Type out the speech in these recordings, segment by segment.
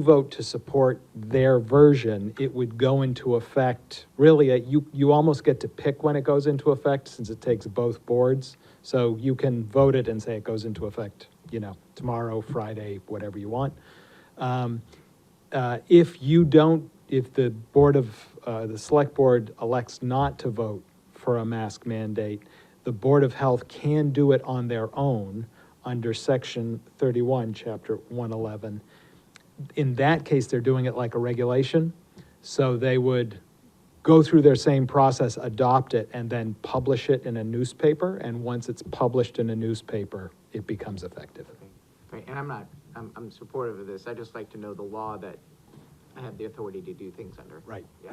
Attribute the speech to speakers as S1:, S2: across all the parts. S1: vote to support their version, it would go into effect, really, uh, you, you almost get to pick when it goes into effect, since it takes both boards. So you can vote it and say it goes into effect, you know, tomorrow, Friday, whatever you want. Um, uh, If you don't, if the Board of, uh, the Select Board elects not to vote for a mask mandate, the Board of Health can do it on their own under Section 31, Chapter 111. In that case, they're doing it like a regulation, so they would go through their same process, adopt it, and then publish it in a newspaper, and once it's published in a newspaper, it becomes effective.
S2: Right, and I'm not, I'm, I'm supportive of this, I just like to know the law that I have the authority to do things under.
S1: Right.
S2: Yeah.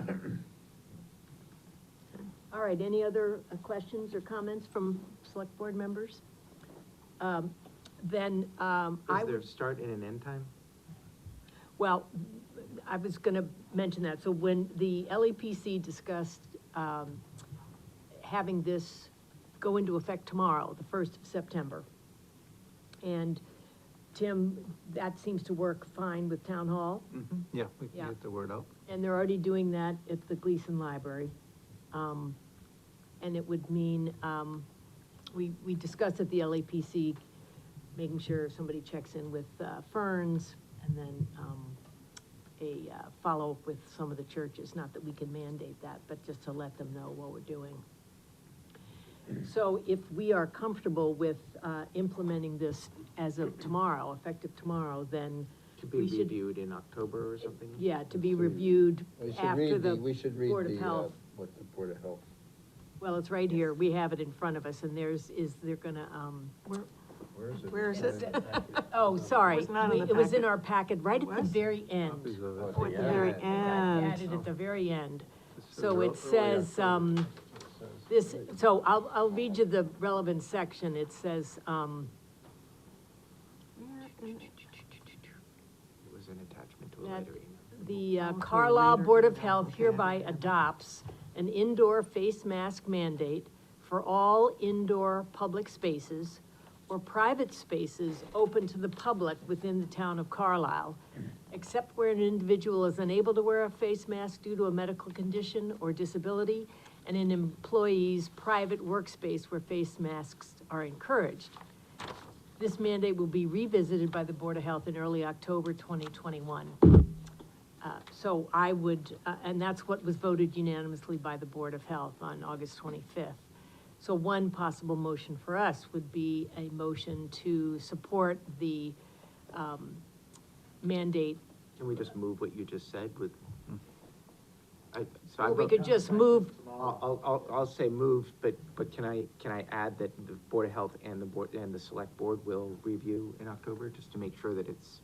S3: All right, any other uh, questions or comments from select board members? Um, Then, um, I,
S2: Is there a start and an end time?
S3: well, I was gonna mention that, so when the LEPC discussed, um, having this go into effect tomorrow, the first of September. And Tim, that seems to work fine with town hall.
S4: Yeah, we can
S3: Yeah.
S4: get the word out.
S3: And they're already doing that at the Gleason Library. Um, And it would mean, um, we, we discussed at the LAPC, making sure somebody checks in with uh, Ferns, and then um, a uh, follow-up with some of the churches, not that we can mandate that, but just to let them know what we're doing. So if we are comfortable with uh, implementing this as of tomorrow, effective tomorrow, then
S2: To be
S3: We should-
S2: reviewed in October or something?
S3: yeah, to be reviewed
S5: We should
S3: after
S5: read
S3: the Board of
S5: the,
S3: Health.
S5: we should read the, uh, what the Board of Health.
S3: Well, it's right here, we have it in front of us, and there's, is, they're gonna, um,
S5: Where is it?
S6: Where is it?
S3: oh, sorry.
S6: was not in
S3: we-
S6: the
S3: It was in
S6: packet.
S3: our packet, right at
S6: It
S3: the
S6: was?
S3: very
S4: Copies
S3: end.
S4: of it.
S5: Oh,
S6: At the
S5: Yeah.
S6: very
S5: It got
S3: It got
S6: end.
S3: Added at the very end,
S4: It's
S3: so
S4: early
S3: it says, um, this, so I'll, I'll read you the relevant section, it says, um,
S2: It was an attachment to a
S3: That-
S2: later email.
S3: the uh,
S6: Also
S3: Carlisle
S6: later
S3: Board of
S6: in the
S3: Health
S6: packet.
S3: hereby adopts an indoor face mask mandate for all indoor public spaces or private spaces open to the public within the town of Carlisle, except where an individual is unable to wear a face mask due to a medical condition or disability, and an employee's private workspace where face masks are encouraged. This mandate will be revisited by the Board of Health in early October 2021. Uh, So I would, uh, and that's what was voted unanimously by the Board of Health on August 25th. So one possible motion for us would be a motion to support the um, mandate.
S2: Can we just move what you just said with?
S4: Hmm.
S2: I, so I
S3: Or we
S2: vote-
S3: could just move,
S2: I'll, I'll- I'll, I'll say move, but, but can I, can I add that the Board of Health and the Board, and the Select Board will review in October, just to make sure that it's,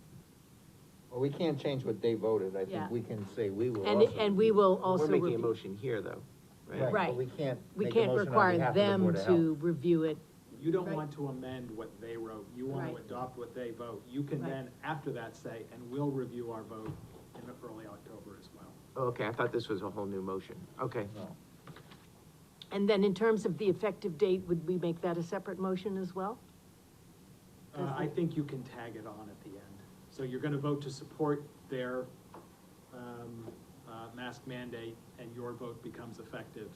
S5: Well, we can't change what they voted, I
S3: Yeah.
S5: think we can say we will
S3: and,
S5: also.
S3: and we will
S2: we're
S3: also,
S2: making a
S3: review-
S2: motion here, though,
S5: Right,
S2: right?
S3: Right.
S5: but we can't
S3: we
S5: make a
S3: can't
S5: motion on behalf
S3: require
S5: of the
S3: them
S5: Board of
S3: to review it.
S1: You don't
S3: Right.
S1: want to amend what they wrote, you want to
S3: Right.
S1: adopt what they vote. You can
S3: Right.
S1: then, after that, say, and we'll review our vote in early October as well. Uh,
S2: Okay, I thought this was a whole new motion, okay.
S5: Health. No.
S3: And then in terms of the effective date, would we make that a separate motion as well?
S1: Uh, I think you can tag it on at the end. So you're gonna vote to support their, um, uh, mask mandate, and your vote becomes effective.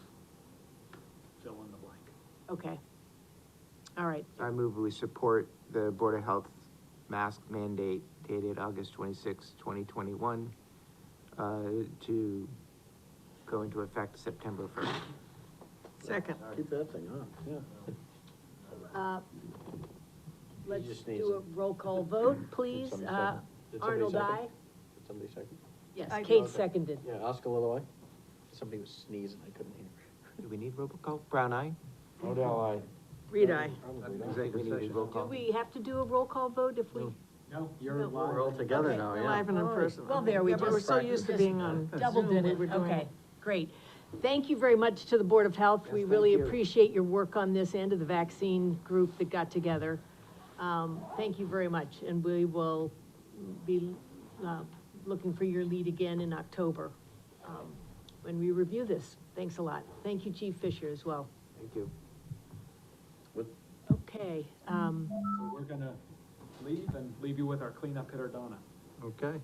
S1: Fill in the blank.
S3: Okay. All right,
S2: I move we support the Board of Health mask mandate dated August twenty-sixth, twenty twenty-one, uh, to go into effect September first.
S6: Second.
S5: Keep that thing on, yeah.
S3: Uh, Let's
S5: just need
S3: do a roll call vote, please.
S5: somebody
S3: Uh,
S5: second? Did somebody
S3: Arnold,
S5: second?
S3: I.
S5: Did somebody second?
S3: Yes,
S6: I-
S3: Kate seconded.
S5: Yeah, Oscar Lilloye? Somebody was sneezing, I couldn't hear.
S2: Do we need roll Brown eye?
S5: Odell, I.
S6: Read I.
S2: We need roll
S3: Do
S2: call.
S3: we have to do a roll call vote if we?
S1: No, you're
S3: No,
S1: live.
S5: We're all together
S3: Okay.
S5: now, Oh, yeah.
S6: Live and in person.
S3: Well, there we
S6: Yeah, but we're
S3: just-
S6: so used to being on
S3: Just Double
S6: Zoom,
S3: did
S6: we
S3: it,
S6: were doing
S3: okay, great. Thank you very much to the Board of Health. We really appreciate your work on this and to the vaccine group that got together. Um, thank you very much, and we will be, uh, looking for your lead again in October, um, when we review this. Thanks a lot. Thank you, Chief Fisher, as well.
S2: Thank you.
S3: Okay, um,
S1: So We're gonna leave and leave you with our cleanup hitter, Donna.
S4: Okay,